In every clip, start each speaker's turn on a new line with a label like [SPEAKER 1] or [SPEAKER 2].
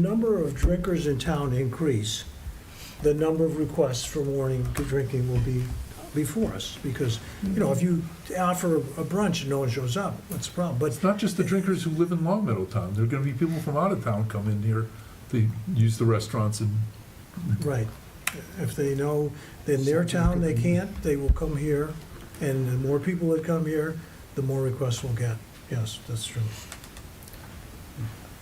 [SPEAKER 1] number of drinkers in town increase, the number of requests for warning to drinking will be before us, because, you know, if you offer a brunch and no one shows up, what's the problem? But
[SPEAKER 2] It's not just the drinkers who live in Long Meadowtown. There are gonna be people from out of town come in here to use the restaurants and,
[SPEAKER 1] Right. If they know in their town they can't, they will come here, and the more people that come here, the more requests we'll get. Yes, that's true.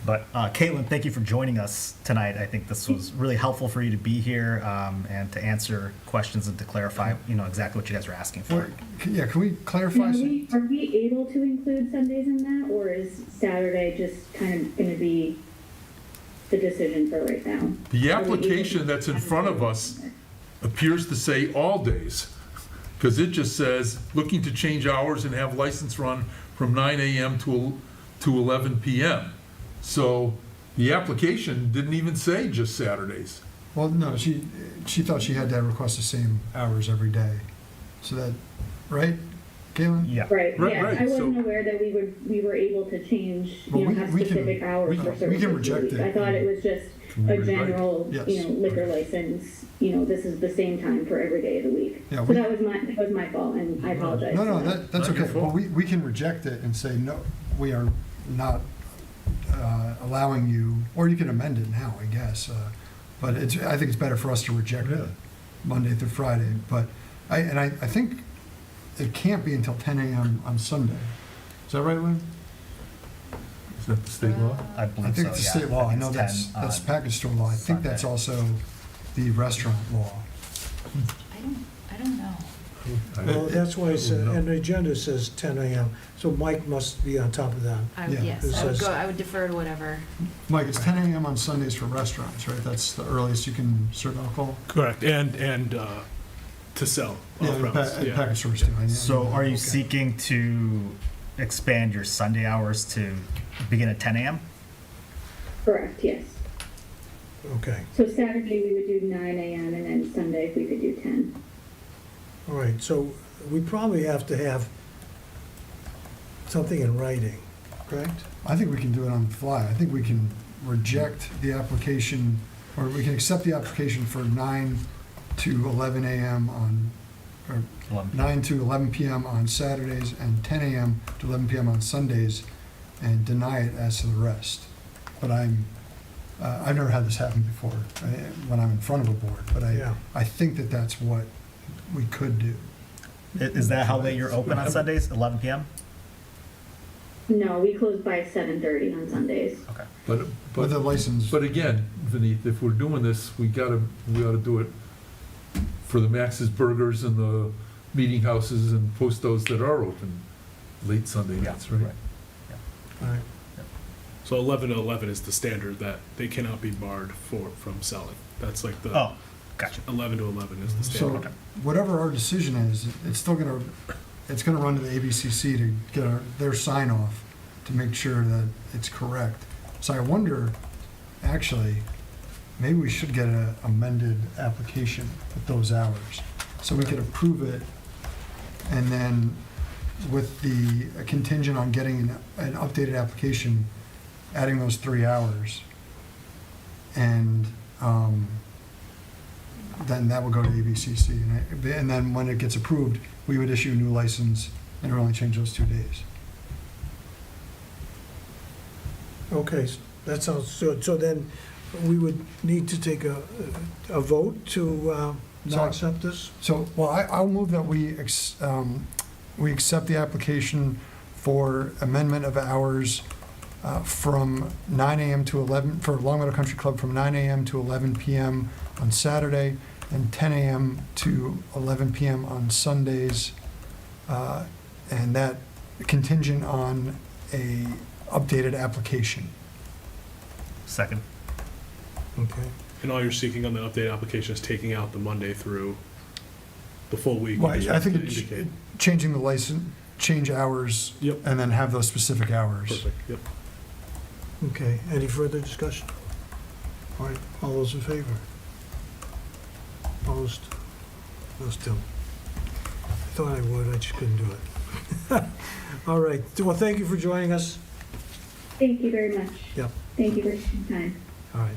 [SPEAKER 3] But uh, Caitlin, thank you for joining us tonight. I think this was really helpful for you to be here um, and to answer questions and to clarify, you know, exactly what you guys are asking for.
[SPEAKER 4] Or- c- Yeah, can we
[SPEAKER 5] Now,
[SPEAKER 4] clarify?
[SPEAKER 5] Are
[SPEAKER 4] some-
[SPEAKER 5] we, are we able to include Sundays in that, or is Saturday just kind of gonna be the decision for right now?
[SPEAKER 2] the application that's in front of us appears to say all days. Because it just says, looking to change hours and have license run from 9 AM to, el- to 11 PM. So the application didn't even say just Saturdays.
[SPEAKER 4] Well, no, she, she thought she had to request the same hours every day. So that, right, Galen?
[SPEAKER 3] Yeah.
[SPEAKER 5] Right,
[SPEAKER 2] Right,
[SPEAKER 5] yeah,
[SPEAKER 2] right,
[SPEAKER 5] I wasn't
[SPEAKER 2] so-
[SPEAKER 5] aware that we would, we were able to change,
[SPEAKER 4] Well,
[SPEAKER 5] you
[SPEAKER 4] we-
[SPEAKER 5] know, have
[SPEAKER 4] we can-
[SPEAKER 5] specific
[SPEAKER 4] we
[SPEAKER 5] hours
[SPEAKER 4] can-
[SPEAKER 5] for
[SPEAKER 4] we
[SPEAKER 5] certain
[SPEAKER 4] can
[SPEAKER 5] days of
[SPEAKER 4] reject
[SPEAKER 5] the
[SPEAKER 4] it.
[SPEAKER 5] week. I thought it was just
[SPEAKER 2] Right,
[SPEAKER 5] a
[SPEAKER 2] right.
[SPEAKER 5] general, you
[SPEAKER 4] Yes.
[SPEAKER 5] know, liquor license, you know, this is the same time for every day of the week.
[SPEAKER 4] Yeah,
[SPEAKER 5] So
[SPEAKER 4] we-
[SPEAKER 5] that was my, that was my fault, and I apologize.
[SPEAKER 4] No, no,
[SPEAKER 5] for
[SPEAKER 4] that, that's
[SPEAKER 2] Not your
[SPEAKER 4] okay. Well,
[SPEAKER 2] fault.
[SPEAKER 4] we, we can reject it and say, no, we are not uh, allowing you, or you can amend it now, I guess. uh, But it's, I think it's better for us to reject
[SPEAKER 2] Yeah.
[SPEAKER 4] it Monday through Friday. But I, and I, I think it can't be until 10 AM on Sunday. Is that right, Lynn?
[SPEAKER 2] Is that the state law?
[SPEAKER 3] I believe
[SPEAKER 4] I think
[SPEAKER 3] so.
[SPEAKER 4] the
[SPEAKER 3] yeah.
[SPEAKER 4] state law, I
[SPEAKER 3] think
[SPEAKER 4] know
[SPEAKER 3] it's uh,
[SPEAKER 4] that's,
[SPEAKER 3] 10
[SPEAKER 4] that's
[SPEAKER 3] on-
[SPEAKER 4] package store law, I think that's
[SPEAKER 3] Sunday.
[SPEAKER 4] also the restaurant law.
[SPEAKER 6] I don't, I don't know.
[SPEAKER 1] Well, that's why it's,
[SPEAKER 2] I don't know.
[SPEAKER 1] and the agenda says 10 AM, so Mike must be on top of that.
[SPEAKER 6] I,
[SPEAKER 4] Yeah.
[SPEAKER 6] would- yes, I would go, I would defer to whatever.
[SPEAKER 4] Mike, it's ten AM on Sundays for restaurants, right? That's the earliest you can serve alcohol?
[SPEAKER 7] Correct, and, and uh, to sell
[SPEAKER 4] Yeah,
[SPEAKER 7] off
[SPEAKER 4] and pa-
[SPEAKER 7] premise,
[SPEAKER 4] and
[SPEAKER 7] yeah.
[SPEAKER 4] package stores too. I- I-
[SPEAKER 3] So are you
[SPEAKER 4] okay.
[SPEAKER 3] seeking to expand your Sunday hours to begin at 10 a.m.?
[SPEAKER 5] Correct, yes.
[SPEAKER 1] Okay,
[SPEAKER 5] So Saturday, we would do nine AM, and then Sunday, if we could do ten.
[SPEAKER 1] all right, so we probably have to have something in writing, correct?
[SPEAKER 4] I think we can do it on the fly. I think we can reject the application, or we can accept the application for nine to eleven AM on, or
[SPEAKER 3] 11 p.m.
[SPEAKER 4] nine to eleven PM on Saturdays and ten AM to eleven PM on Sundays, and deny it as to the rest. But I'm, uh, I've never had this happen before, uh, when I'm in front of a board, but I,
[SPEAKER 1] Yeah.
[SPEAKER 4] I think that that's what we could do.
[SPEAKER 3] I- Is that how late you're open on Sundays? 11 p.m.
[SPEAKER 5] No, we close by seven thirty on Sundays.
[SPEAKER 3] Okay.
[SPEAKER 2] But, but
[SPEAKER 4] With a license,
[SPEAKER 2] But Mm-hmm. again, Vineet, if we're doing this, we gotta, we ought to do it for the Max's Burgers and the meeting houses and postos that are open late Sunday nights, right?
[SPEAKER 1] All right,
[SPEAKER 7] So 11 to 11 is the standard that they cannot be barred for, from selling. That's like the,
[SPEAKER 3] Oh, gotcha.
[SPEAKER 7] 11 to 11 is the
[SPEAKER 4] so
[SPEAKER 7] standard.
[SPEAKER 4] whatever our decision is, it's still gonna, it's gonna run to the ABCC to get our- their sign off to make sure that it's correct. So I wonder, actually, maybe we should get an amended application with those hours. So we could approve it, and then with the contingent on getting an, an updated application, adding those three hours. And, um, then that would go to ABCC, and I- and then when it gets approved, we would issue a new license, and it would only change those two days.
[SPEAKER 1] okay, s- that sounds, good. so then we would need to take a, a vote to uh,
[SPEAKER 4] No.
[SPEAKER 1] not accept this?
[SPEAKER 4] So, well, I, I'll move that we, ex- um, we accept the application for amendment of hours uh, from 9 AM to 11, for Long Meadow Country Club from 9 AM to 11 PM on Saturday, and 10 AM to 11 PM on Sundays, uh, and that contingent on a updated application.
[SPEAKER 3] Second.
[SPEAKER 1] Okay.
[SPEAKER 7] And all you're seeking on the update application is taking out the Monday through the full week.
[SPEAKER 4] Well,
[SPEAKER 7] is
[SPEAKER 4] I I
[SPEAKER 7] what
[SPEAKER 4] think
[SPEAKER 7] they
[SPEAKER 4] it ch-
[SPEAKER 7] indicate.
[SPEAKER 4] changing the license, change hours,
[SPEAKER 7] Yep.
[SPEAKER 4] and then have those specific hours.
[SPEAKER 7] Perfect, yep.
[SPEAKER 1] Okay, any further discussion? All right, all those in favor? Opposed? No, still. I thought I would, I just couldn't do it. All right, well, thank you for joining us.
[SPEAKER 5] Thank you very much.
[SPEAKER 1] Yep.
[SPEAKER 5] Thank you for your time.